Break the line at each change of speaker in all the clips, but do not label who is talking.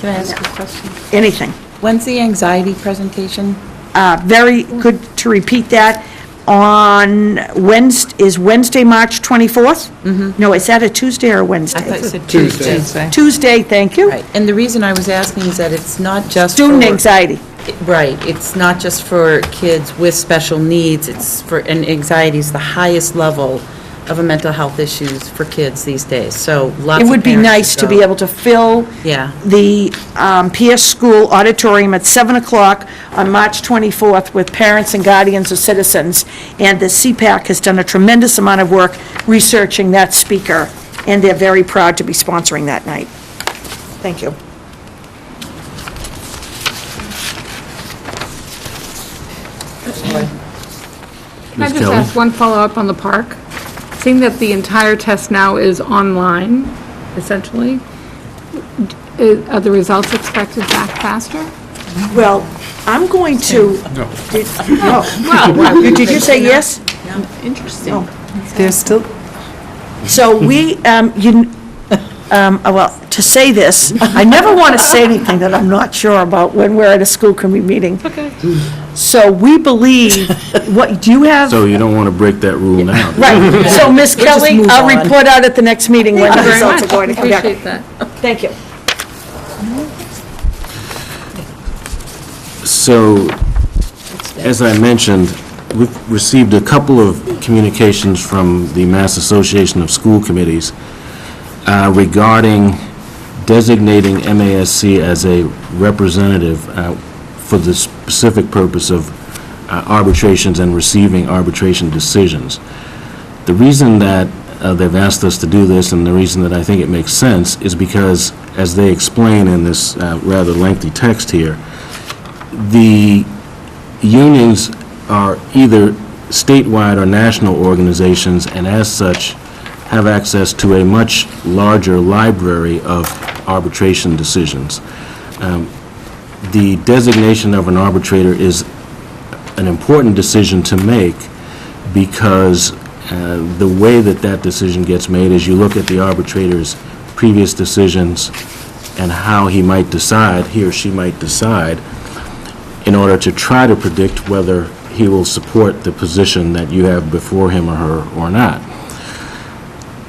Can I ask a question?
anything.
When's the anxiety presentation?
Uh, Very good to repeat that. On Wednesday, is Wednesday, March 24th? Mm-hmm. No, is that a Tuesday or a Wednesday?
I thought you said
Tuesday.
Tuesday.
Tuesday, thank you.
Right, and the reason I was asking is that it's not just for...
Student anxiety.
Right, it's not just for kids with special needs, it's for, and anxiety is the highest level of a mental health issues for kids these days, so lots
It
of
would be
parents
nice to
go.
be able to fill
Yeah.
the um, PS School Auditorium at 7 o'clock on March 24th with parents and guardians of citizens. And the CPAC has done a tremendous amount of work researching that speaker, and they're very proud to be sponsoring that night. Thank you.
Can I
Ms.
just
Kelly?
ask one follow-up on the park? Seeing that the entire test now is online, essentially, i- are the results expected back faster?
Well, I'm going to... Did- No. Did you say yes?
Interesting.
There's still,
So we, um, you, kn- um, uh, well, to say this, I never want to say anything that I'm not sure about when we're at a school committee meeting.
Okay.
So we believe, what, do you have?
So you don't want to break that rule now.
Right, so Ms.
just
Kelly,
move
I'll
on.
report out at the next meeting when the
Thank you very
results are
much.
going to come back.
Appreciate that.
Thank you.
So, as I mentioned, we've received a couple of communications from the Mass Association of School Committees uh, regarding designating MASC as a representative uh, for the specific purpose of uh, arbitrations and receiving arbitration decisions. The reason that uh, they've asked us to do this, and the reason that I think it makes sense, is because, as they explain in this uh, rather lengthy text here, the unions are either statewide or national organizations, and as such, have access to a much larger library of arbitration decisions. Um, The designation of an arbitrator is an important decision to make because uh, the way that that decision gets made is you look at the arbitrator's previous decisions and how he might decide, he or she might decide, in order to try to predict whether he will support the position that you have before him or her or not.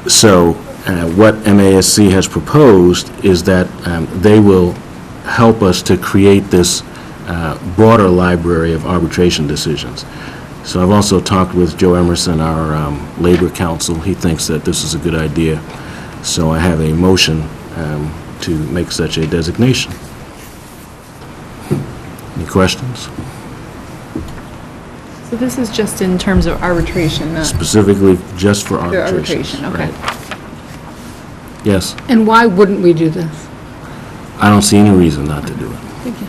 So uh, what MASC has proposed is that um, they will help us to create this uh, broader library of arbitration decisions. So I've also talked with Joe Emerson, our um, Labor Council. He thinks that this is a good idea. So I have a motion um, to make such a designation. Any questions?
so this is just in terms of arbitration, not
Specifically just for
pure
arbitration.
arbitration, okay.
Yes,
And why wouldn't we do this?
I don't see any reason not to do it.
Thank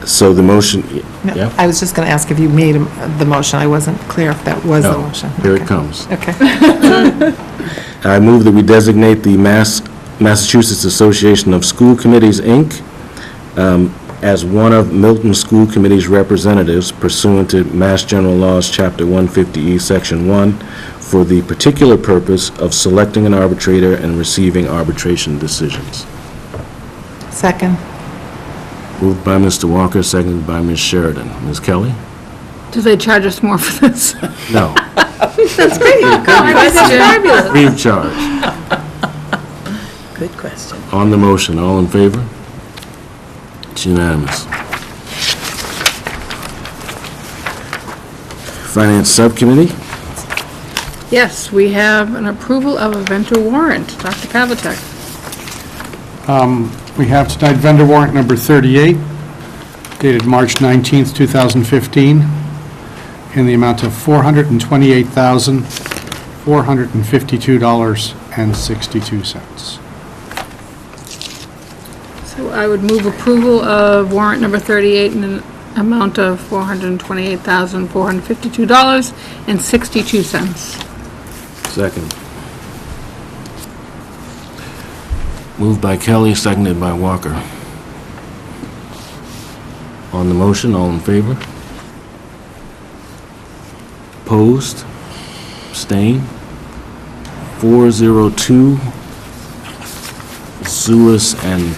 you.
So the motion,
No,
yeah?
I was just going to ask if you made um, the motion, I wasn't clear if that was the
No,
motion.
here it
Okay.
comes.
Okay,
I move that we designate the Mass, Massachusetts Association of School Committees, Inc., um, as one of Milton School Committee's representatives pursuant to Mass General Laws, Chapter 150E, Section 1, for the particular purpose of selecting an arbitrator and receiving arbitration decisions.
second.
Moved by Mr. Walker, seconded by Ms. Sheridan. Ms. Kelly?
Do they charge us more for this?
No,
Fabulous.
free of charge.
Good question.
On the motion, all in favor? It's unanimous. Finance Subcommittee?
Yes, we have an approval of a vendor warrant. Dr. Pavlicek.
We have tonight vendor warrant number 38, dated March 19th, 2015, in the amount of $428,452.62.
So I would move approval of warrant number 38 in an amount of $428,452.62.
Second. Moved by Kelly, seconded by Walker. On the motion, all in favor? Opposed? Abstained? Four zero two Sulis and